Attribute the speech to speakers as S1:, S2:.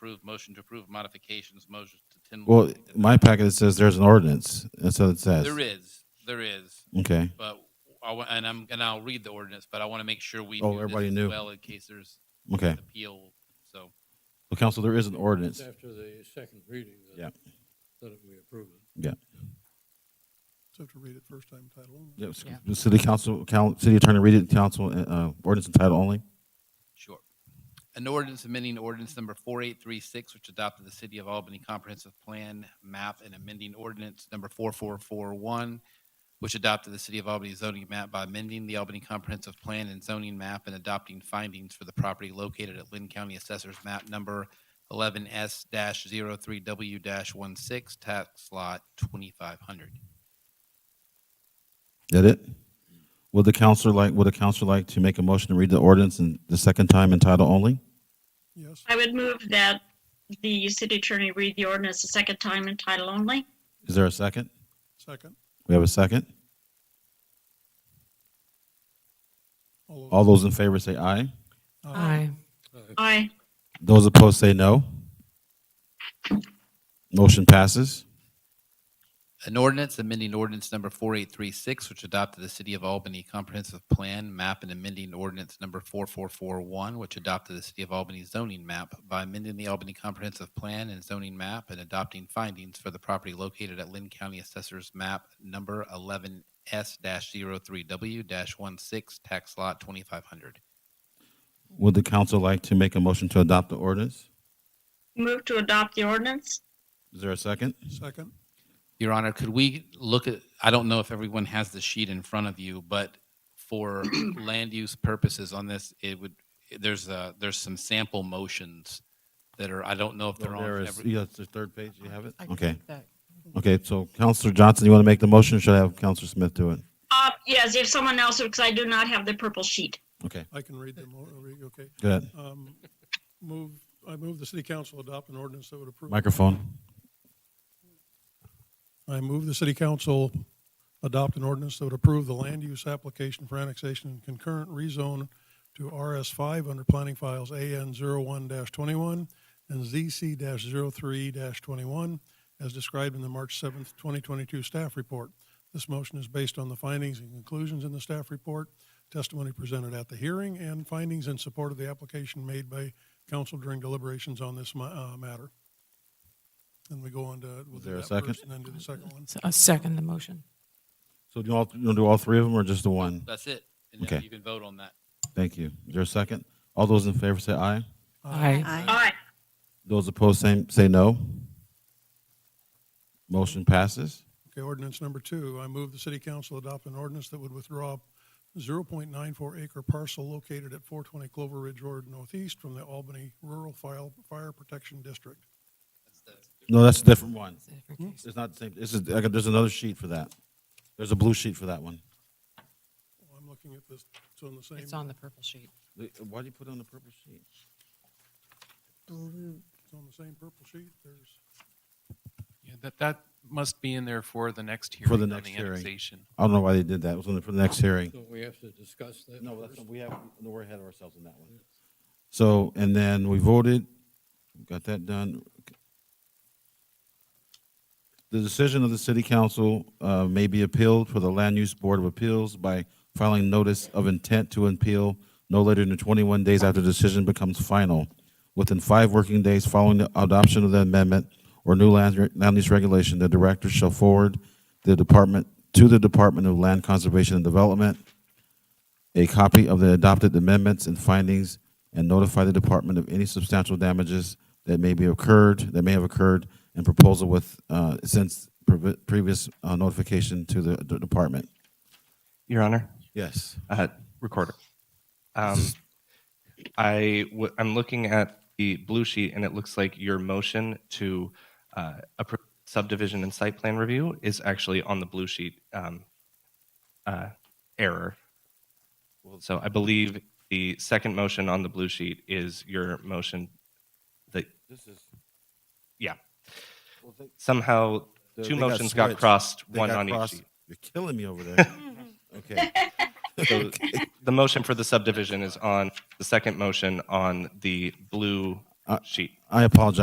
S1: approve, motion to approve modifications, motion to ten.
S2: Well, my packet it says there's an ordinance. That's what it says.
S1: There is, there is,
S2: Okay.
S1: but I, wa- and I'm, and I'll read the ordinance, but I want to make sure we.
S2: Oh,
S1: do this
S2: everybody
S1: as
S2: knew.
S1: Well, in case there's
S2: Okay.
S1: appeal, so.
S2: Well, council, there is an ordinance.
S3: It's after the second reading
S2: Yeah.
S3: that, that we approve it.
S4: So have to read it first time title only.
S2: Yeah, s-
S5: Yeah.
S2: the City council, coun- city attorney, read it, council, uh, uh, ordinance and title only.
S1: Sure. An ordinance amending ordinance number 4836, which adopted the City of Albany Comprehensive Plan Map and amending ordinance number 4441, which adopted the City of Albany zoning map by amending the Albany Comprehensive Plan and zoning map and adopting findings for the property located at Lynn County Assessor's Map Number 11S-03W-16, tax lot 2500.
S2: That it? Would the council like, would the council like to make a motion to read the ordinance and the second time in title only?
S4: Yes,
S5: I would move that the city attorney read the ordinance a second time in title only.
S2: Is there a second?
S4: second.
S2: We have a second.
S4: those-
S2: All those in favor say aye.
S4: Aye.
S5: Aye.
S2: Those opposed say no. Motion passes.
S1: An ordinance amending ordinance number 4836, which adopted the City of Albany Comprehensive Plan Map and amending ordinance number 4441, which adopted the City of Albany zoning map by amending the Albany Comprehensive Plan and zoning map and adopting findings for the property located at Lynn County Assessor's Map Number 11S-03W-16, Tax Lot 2500.
S2: Would the council like to make a motion to adopt the ordinance?
S5: Move to adopt the ordinance.
S2: Is there a second?
S4: Second,
S1: Your Honor, could we look at, I don't know if everyone has the sheet in front of you, but for land use purposes on this, it would, there's a, there's some sample motions that are, I don't know if they're
S2: There
S1: on.
S2: is-
S1: every-
S2: yeah, it's the third page. You have it?
S6: I
S2: Okay.
S6: think that-
S2: Okay, so Counselor Johnson, you want to make the motion? or Should I have Counselor Smith do it?
S5: Uh, yes, if someone else, because I do not have the purple sheet.
S2: Okay,
S4: I can read them, all- re- okay.
S2: go ahead.
S4: Um, Move, I move the city council adopt an ordinance that would approve.
S2: Microphone.
S4: I move the city council adopt an ordinance that would approve the land use application for annexation and concurrent rezone to RS five under planning files AN one twenty-one and ZC 3 twenty-one as described in the March seventh, twenty twenty-two staff report. This motion is based on the findings and conclusions in the staff report, testimony presented at the hearing, and findings in support of the application made by council during deliberations on this ma- uh, matter. And we go on to. we'll
S2: Is
S4: do
S2: there a
S4: that
S2: second?
S4: first And then do the second one.
S6: So I second the motion.
S2: So do you all, you want to do all three of them or just the one?
S1: That's it. And now
S2: Okay.
S1: you can vote on that.
S2: Thank you. Is there a second? All those in favor say aye.
S4: Uh,
S6: Aye.
S5: Aye. Aye.
S2: Those opposed say, say no. Motion passes.
S4: Okay, ordinance number two, I move the city council adopt an ordinance that would withdraw 0.94 acre parcel located at 420 Clover Ridge Road Northeast from the Albany Rural File- Fire Protection District.
S2: No, that's a different one.
S6: It's a different case.
S2: It's not the same. This is, I got- there's another sheet for that. There's a blue sheet for that one.
S4: Well, I'm looking at this, it's on the same.
S6: It's on the purple sheet.
S2: The- Why do you put it on the purple sheet?
S4: It's on the same purple sheet, there's,
S7: Yeah, that, that must be in there for the next hearing.
S2: For the
S7: on
S2: next hearing.
S7: annexation.
S2: I don't know why they did that. It was on the, for the next hearing.
S3: So we have to discuss that
S2: No, that's,
S3: first?
S2: we have, no, we're ahead of ourselves on that one. So, and then we voted, got that done. The decision of the city council uh, may be appealed for the Land Use Board of Appeals by filing notice of intent to appeal no later than 21 days after the decision becomes final. Within five working days following the adoption of the amendment or new land land use regulation, the director shall forward the department, to the Department of Land Conservation and Development, a copy of the adopted amendments and findings and notify the department of any substantial damages that may be occurred, that may have occurred, and proposal with, uh, since previ- previous uh, notification to the the department.
S8: Your Honor,
S2: Yes.
S8: uh, recorder. Um, I w- I'm looking at the blue sheet, and it looks like your motion to uh, approve subdivision and site plan review is actually on the blue sheet um, uh, error. So I believe the second motion on the blue sheet is your motion that
S2: This is,
S8: yeah
S2: well, they-
S8: somehow
S2: they-
S8: two
S2: they
S8: motions got,
S2: switched.
S8: crossed,
S2: They
S8: one
S2: got
S8: on
S2: crossed.
S8: each sheet.
S2: You're killing me over there. Okay.
S8: So the motion for the subdivision is on, the second motion on the blue sheet.
S2: I apologize.